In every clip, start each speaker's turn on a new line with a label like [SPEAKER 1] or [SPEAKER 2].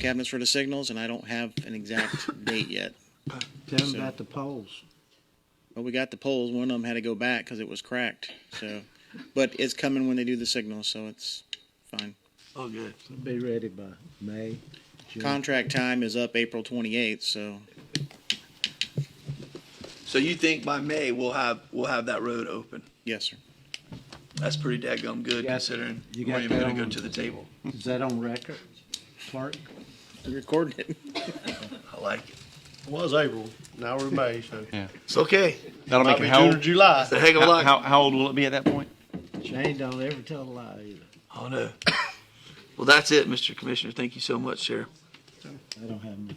[SPEAKER 1] cabinets for the signals, and I don't have an exact date yet.
[SPEAKER 2] Tell them about the polls.
[SPEAKER 1] But we got the poles. One of them had to go back because it was cracked. So, but it's coming when they do the signals, so it's fine.
[SPEAKER 3] Oh, good.
[SPEAKER 2] Be ready by May, June.
[SPEAKER 1] Contract time is up April 28th, so
[SPEAKER 3] So you think by May we'll have, we'll have that road open?
[SPEAKER 1] yes, sir.
[SPEAKER 3] That's pretty daggum good
[SPEAKER 2] Yeah.
[SPEAKER 3] considering
[SPEAKER 2] You
[SPEAKER 3] you
[SPEAKER 2] got
[SPEAKER 3] weren't even
[SPEAKER 2] that
[SPEAKER 3] gonna go
[SPEAKER 2] on-
[SPEAKER 3] to the table.
[SPEAKER 2] Is that on record, clerk?
[SPEAKER 1] We're recording it.
[SPEAKER 3] I like it.
[SPEAKER 4] Was April, now we're May, so.
[SPEAKER 3] It's okay.
[SPEAKER 5] That'll
[SPEAKER 4] Might
[SPEAKER 5] make
[SPEAKER 4] be
[SPEAKER 5] it
[SPEAKER 4] June
[SPEAKER 5] how
[SPEAKER 4] or
[SPEAKER 5] old?
[SPEAKER 4] July.
[SPEAKER 3] It's a heck of a
[SPEAKER 5] How,
[SPEAKER 3] lot.
[SPEAKER 5] how, how old will it be at that point?
[SPEAKER 2] Shane don't ever tell a lie either.
[SPEAKER 3] Oh, no. Well, that's it, Mr. Commissioner. Thank you so much, Sheriff.
[SPEAKER 2] I don't have any.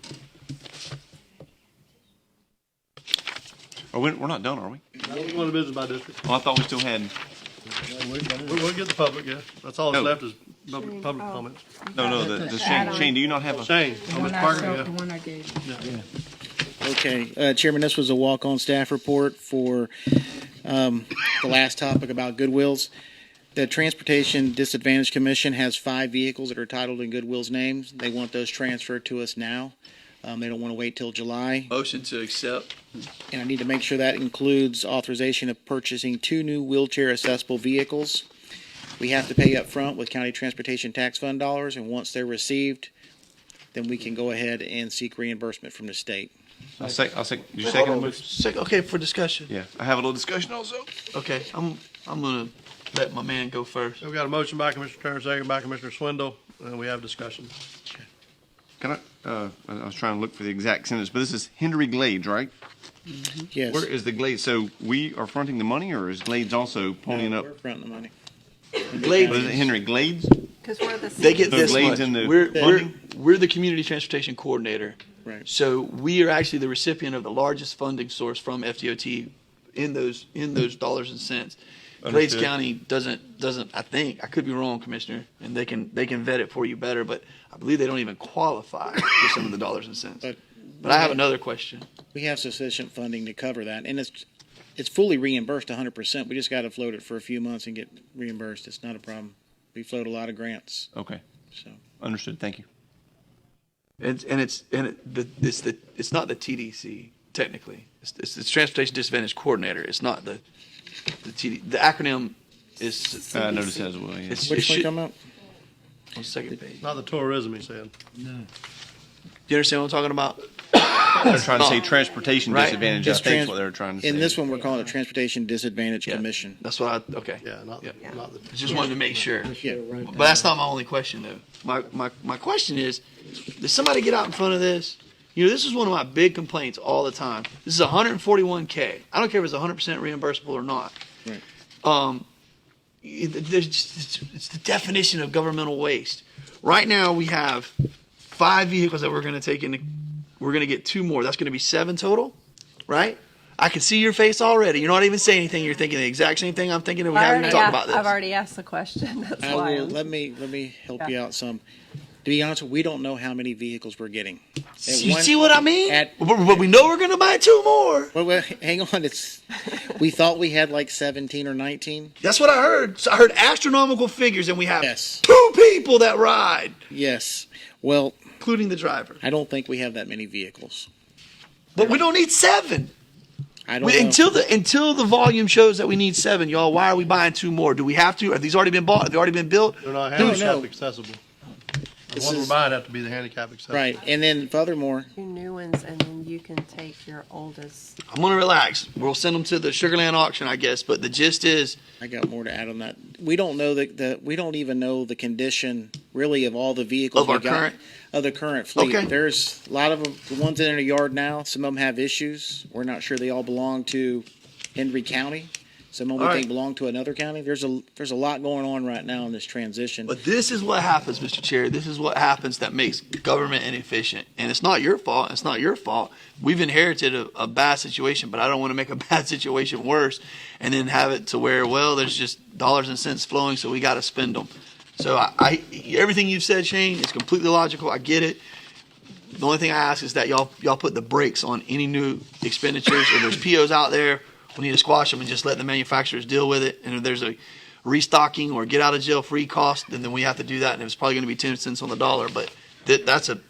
[SPEAKER 5] Are we, we're not done, are we?
[SPEAKER 4] We're going to business by district.
[SPEAKER 5] Oh, I thought we still had.
[SPEAKER 4] We're going to get the public, yeah. That's all that's
[SPEAKER 5] No.
[SPEAKER 4] left is public, public comments.
[SPEAKER 5] No, no, the, the Shane.
[SPEAKER 6] Add-on.
[SPEAKER 5] Shane, do you not have a?
[SPEAKER 4] Shane,
[SPEAKER 6] The
[SPEAKER 4] on Ms.
[SPEAKER 6] one I
[SPEAKER 4] Parker,
[SPEAKER 6] sold,
[SPEAKER 4] yeah.
[SPEAKER 6] the one I gave.
[SPEAKER 1] Okay, uh, Chairman, this was a walk-on staff report for um, the last topic about Goodwills. The Transportation Disadvantage Commission has five vehicles that are titled in Goodwill's names. They want those transferred to us now. Um, They don't want to wait till July.
[SPEAKER 3] Motion to accept.
[SPEAKER 1] And I need to make sure that includes authorization of purchasing two new wheelchair accessible vehicles. We have to pay up front with county transportation tax fund dollars, and once they're received, then we can go ahead and seek reimbursement from the state.
[SPEAKER 5] I'll sec, I'll sec, you second the motion?
[SPEAKER 3] Sec- Okay, for discussion.
[SPEAKER 5] Yeah, I have a little discussion also.
[SPEAKER 3] Okay, I'm, I'm gonna let my man go first.
[SPEAKER 4] We've got a motion by Commissioner Turner, second by Commissioner Swindle, and we have discussion.
[SPEAKER 5] Can I, uh, I I was trying to look for the exact sentence, but this is Henry Glades, right?
[SPEAKER 1] Yes.
[SPEAKER 5] Where is the Glades? So we are fronting the money or is Glades also ponying up?
[SPEAKER 1] We're fronting the money.
[SPEAKER 5] What is it, Henry Glades?
[SPEAKER 6] Cause we're the.
[SPEAKER 3] They get
[SPEAKER 5] The
[SPEAKER 3] this much.
[SPEAKER 5] blades and the
[SPEAKER 3] We're, we're,
[SPEAKER 5] funding?
[SPEAKER 3] we're the community transportation coordinator.
[SPEAKER 1] Right.
[SPEAKER 3] So we are actually the recipient of the largest funding source from FDOT in those, in those dollars and cents. Glades
[SPEAKER 5] Understood.
[SPEAKER 3] County doesn't, doesn't, I think, I could be wrong, Commissioner, and they can, they can vet it for you better, but I believe they don't even qualify for some of the dollars and cents.
[SPEAKER 1] But-
[SPEAKER 3] But I have another question.
[SPEAKER 1] We have sufficient funding to cover that, and it's, it's fully reimbursed hundred percent. We just gotta float it for a few months and get reimbursed. It's not a problem. We float a lot of grants,
[SPEAKER 5] Okay,
[SPEAKER 1] so.
[SPEAKER 5] understood. Thank you.
[SPEAKER 3] And, and it's and it, the, it's the it's not the TDC technically. It's, it's, it's transportation disadvantage coordinator. It's not the the TD, the acronym is
[SPEAKER 5] Uh, I noticed that as well, yeah.
[SPEAKER 3] it's, it
[SPEAKER 1] Which one
[SPEAKER 3] should,
[SPEAKER 1] come up?
[SPEAKER 3] on the second page.
[SPEAKER 4] Not the tourism, he said.
[SPEAKER 3] Do you understand what I'm talking about?
[SPEAKER 5] They're trying to say transportation
[SPEAKER 3] Right.
[SPEAKER 5] disadvantage, I
[SPEAKER 1] It's
[SPEAKER 5] think
[SPEAKER 1] trans-
[SPEAKER 5] is what they're trying to say.
[SPEAKER 1] In this one, we're calling it Transportation Disadvantage Commission.
[SPEAKER 3] That's what I okay.
[SPEAKER 4] Yeah, not, not the.
[SPEAKER 3] Just wanted to make sure.
[SPEAKER 1] Yeah.
[SPEAKER 3] But that's not my only question though. My my my question is, did somebody get out in front of this? You know, this is one of my big complaints all the time. This is 141k. I don't care if it's 100% reimbursable or not.
[SPEAKER 1] Right.
[SPEAKER 3] um, it- there's just, it's, it's the definition of governmental waste. Right now, we have five vehicles that we're going to take into. We're going to get two more. That's going to be seven total, right? I can see your face already. You're not even saying anything. You're thinking the exact same thing I'm thinking, and we
[SPEAKER 7] I
[SPEAKER 3] haven't even
[SPEAKER 7] already
[SPEAKER 3] talked
[SPEAKER 7] asked-
[SPEAKER 3] about this.
[SPEAKER 7] I've already asked the question. That's
[SPEAKER 1] I
[SPEAKER 7] why.
[SPEAKER 1] will,
[SPEAKER 7] I'm-
[SPEAKER 1] let me, let me help
[SPEAKER 7] Yeah.
[SPEAKER 1] you out some. To be honest, we don't know how many vehicles we're getting. At
[SPEAKER 3] you
[SPEAKER 1] one-
[SPEAKER 3] see what I mean?
[SPEAKER 1] at-
[SPEAKER 3] but, but we know we're going to buy two more.
[SPEAKER 1] Well, well, hang on, it's, we thought we had like seventeen or nineteen.
[SPEAKER 3] That's what I heard. So I heard astronomical figures, and we have
[SPEAKER 1] Yes.
[SPEAKER 3] two people that ride,
[SPEAKER 1] Yes. Well,
[SPEAKER 3] including the driver.
[SPEAKER 1] I don't think we have that many vehicles.
[SPEAKER 3] But we don't need seven.
[SPEAKER 1] I don't
[SPEAKER 3] We,
[SPEAKER 1] know.
[SPEAKER 3] until the until the volume shows that we need seven, y'all. Why are we buying two more? Do we have to? Have these already been bought? Have they already been built?
[SPEAKER 4] They're not
[SPEAKER 1] No, no.
[SPEAKER 4] handicap accessible. The
[SPEAKER 1] This
[SPEAKER 4] ones we're
[SPEAKER 1] is-
[SPEAKER 4] buying have to be the handicap accessible.
[SPEAKER 1] Right, and then furthermore,
[SPEAKER 7] Two new ones, and then you can take your oldest.
[SPEAKER 3] I'm gonna relax. We'll send them to the Sugarland auction, I guess. But the gist is,
[SPEAKER 1] I got more to add on that. We don't know that the we don't even know the condition really of all the vehicles
[SPEAKER 3] Of our
[SPEAKER 1] we got,
[SPEAKER 3] current-
[SPEAKER 1] of the current fleet.
[SPEAKER 3] Okay.
[SPEAKER 1] There's a lot of them, the ones in our yard now. Some of them have issues. We're not sure they all belong to Henry County. Some of them
[SPEAKER 3] All
[SPEAKER 1] we
[SPEAKER 3] right.
[SPEAKER 1] think belong to another county. There's a there's a lot going on right now in this transition.
[SPEAKER 3] but this is what happens, Mr. Chair. This is what happens that makes government inefficient, and it's not your fault. It's not your fault. We've inherited a, a bad situation, but I don't want to make a bad situation worse, and then have it to where well, there's just dollars and cents flowing, so we got to spend them. So I, I everything you've said, Shane, is completely logical. I get it. The only thing I ask is that y'all y'all put the brakes on any new expenditures. If there's POs out there, we need to squash them and just let the manufacturers deal with it. And if there's a restocking or get out of jail free cost, then, then we have to do that. And it's probably going to be ten cents on the dollar, but th- that's a